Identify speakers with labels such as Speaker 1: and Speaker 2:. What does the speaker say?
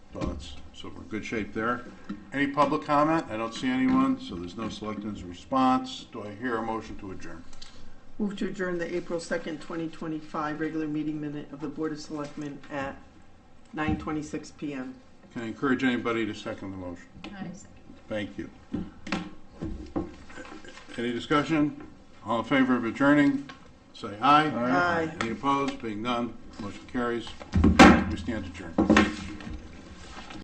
Speaker 1: good shape there. Any public comment? I don't see anyone, so there's no selectmen's response. Do I hear a motion to adjourn?
Speaker 2: Move to adjourn the April 2nd, 2025 regular meeting minute of the Board of Selectmen at 9:26 PM.
Speaker 1: Can I encourage anybody to second the motion?
Speaker 3: I second.
Speaker 1: Thank you. Any discussion? All in favor of adjourning, say aye.
Speaker 2: Aye.
Speaker 1: Any opposed? Being none, motion carries. We stand adjourned.